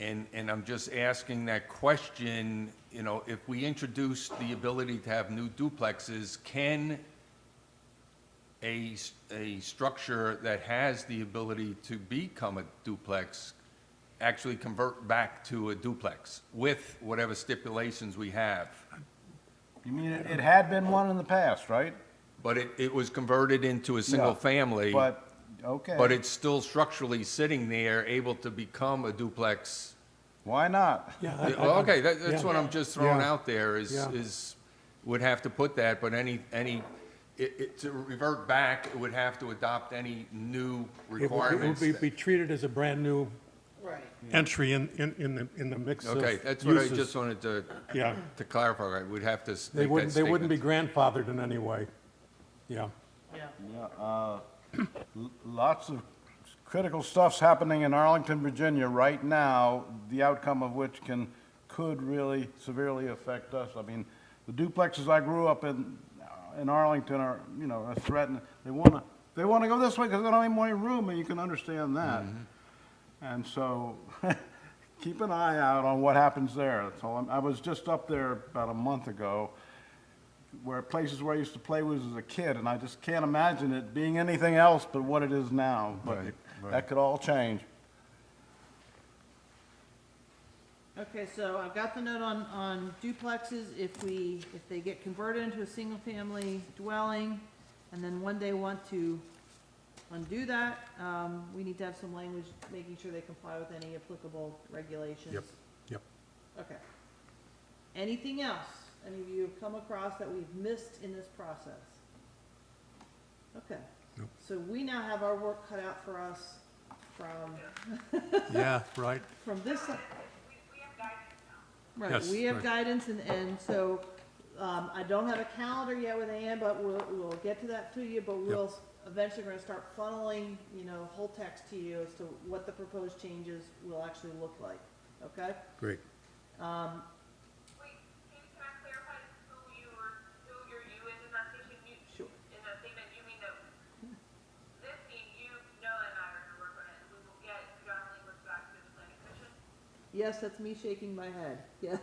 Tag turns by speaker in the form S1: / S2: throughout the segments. S1: And, and I'm just asking that question, you know, if we introduce the ability to have new duplexes, can a, s- a structure that has the ability to become a duplex actually convert back to a duplex with whatever stipulations we have?
S2: You mean, it it had been one in the past, right?
S1: But it, it was converted into a single family.
S2: But, okay.
S1: But it's still structurally sitting there, able to become a duplex.
S2: Why not?
S3: Yeah, I- I
S1: Well,
S3: don't-
S1: Okay, that, that's
S3: yeah.
S1: what I'm just throwing
S3: Yeah.
S1: out there is,
S3: Yeah.
S1: is, would have to put that, but any, any, it, it, to revert back, it would have to adopt any new
S3: It would- It
S1: requirements.
S3: would be- be treated as a brand-new
S4: Right.
S3: entry in, in, in the, in the mix of
S1: Okay, that's what I
S3: uses.
S1: just wanted to,
S3: Yeah.
S1: to clarify, we'd have to s-
S3: They
S1: make that
S3: wouldn't, they wouldn't be
S1: statement.
S3: grandfathered in any way. Yeah.
S4: Yeah.
S2: Yeah, uh, l- Lots of critical stuff's happening in Arlington, Virginia right now, the outcome of which can, could really severely affect us. I mean, the duplexes I grew up in, in Arlington are, you know, are threatened. They wanna, they wanna go this way because they don't have more room, and you can understand that. And so, keep an eye out on what happens there. That's all. I'm- I was just up there about a month ago, where places where I used to play was as a kid, and I just can't imagine it being anything else but what it is now. But
S1: Right, right.
S2: that could all change.
S4: Okay, so I've got the note on, on duplexes, if we, if they get converted into a single-family dwelling, and then one day want to undo that, um, we need to have some language making sure they comply with any applicable regulations.
S3: Yep, yep.
S4: Okay. Anything else any of you have come across that we've missed in this process? Okay.
S3: Nope.
S4: So we now have our work cut out for us from
S3: Yeah, right.
S4: from this. Right,
S3: Yes,
S4: we have
S3: right.
S4: guidance and, and so, um, I don't have a calendar yet with Ann, but we'll, we'll get to that to you, but we'll s- eventually we're gonna start funneling, you know, whole text to you as to what the proposed changes will actually look like, okay?
S3: Great.
S5: Wait, can can I clarify who you were, who your you is in that station? You,
S4: Sure.
S5: in that statement, you mean that this mean you, Noah and I are gonna work on it, we will get draft language back to the planning commission?
S4: Yes, that's me shaking my head, yes.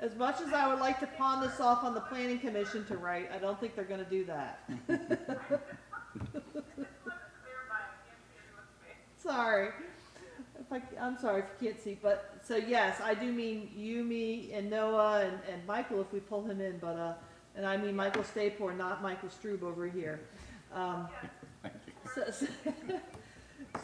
S4: As much as I would like to pawn this off on the planning commission to write, I don't think they're gonna do that.
S5: Clarify, I can't hear you, what's it?
S4: Sorry. If I, I'm sorry if you can't see, but, so yes, I do mean you, me, and Noah, and, and Michael if we pull him in, but, uh, and I mean Michael Stapor, not Michael Strube over here. Um, so- so-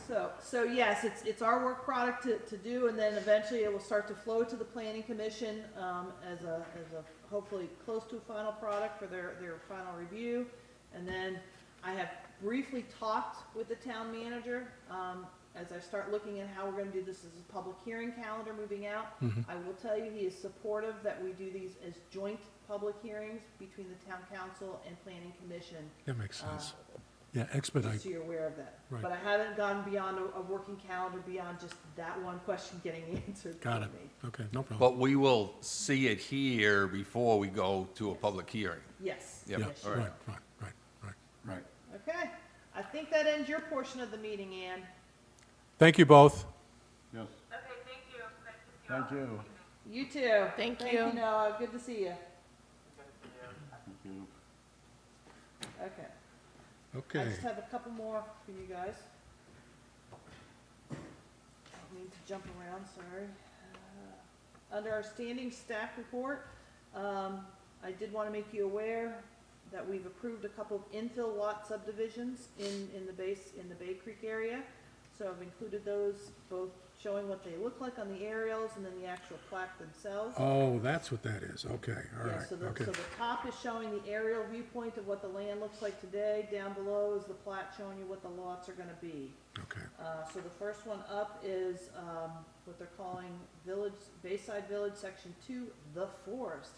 S4: So, so yes, it's, it's our work product to, to do, and then eventually it will start to flow to the planning commission, um, as a, as a, hopefully close to a final product for their, their final review. And then I have briefly talked with the town manager, um, as I start looking at how we're gonna do this as a public hearing calendar moving out. I will tell you, he is supportive that we do these as joint public hearings between the town council and planning commission,
S3: That makes
S4: uh,
S3: sense. Yeah, expedite.
S4: so you're aware of that.
S3: Right.
S4: But I haven't gone beyond a, a working calendar, beyond just that one question getting answered for
S3: Got it.
S4: me.
S3: Okay, no problem.
S1: But we will see it here before we go to a public hearing.
S4: Yes.
S1: Yeah,
S3: Yeah,
S4: yes,
S1: all
S4: sure.
S3: right, right, right, right.
S2: Right.
S4: Okay, I think that ends your portion of the meeting, Ann.
S3: Thank you both.
S2: Yes,
S5: Okay, thank you, nice to see you all.
S2: thank you.
S4: You too.
S6: Thank
S4: Thank
S6: you.
S4: you, Noah, good to see you. Okay, I
S3: Okay.
S4: just have a couple more for you guys. I need to jump around, sorry. Uh, Under our standing staff report, um, I did wanna make you aware that we've approved a couple of infill lot subdivisions in, in the base, in the Bay Creek area. So I've included those, both showing what they look like on the aerials and then the actual plaque themselves.
S3: Oh, that's what that is. Okay, all
S4: Yeah,
S3: right,
S4: so the, so
S3: okay.
S4: the top is showing the aerial viewpoint of what the land looks like today, down below is the plat showing you what the lots are gonna be.
S3: Okay,
S4: Uh, so the first one up is, um, what they're calling Village, Bayside Village, Section Two, The Forest.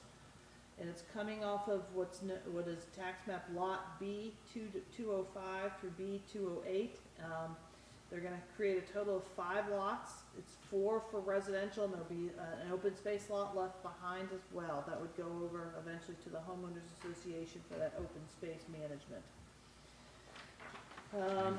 S4: And it's coming off of what's, kn- what is tax map Lot B two, two oh five through B two oh eight. Um, they're gonna create a total of five lots, it's four for residential, and there'll be uh, an open space lot left behind as well. That would go over eventually to the homeowners association for that open space management. Um,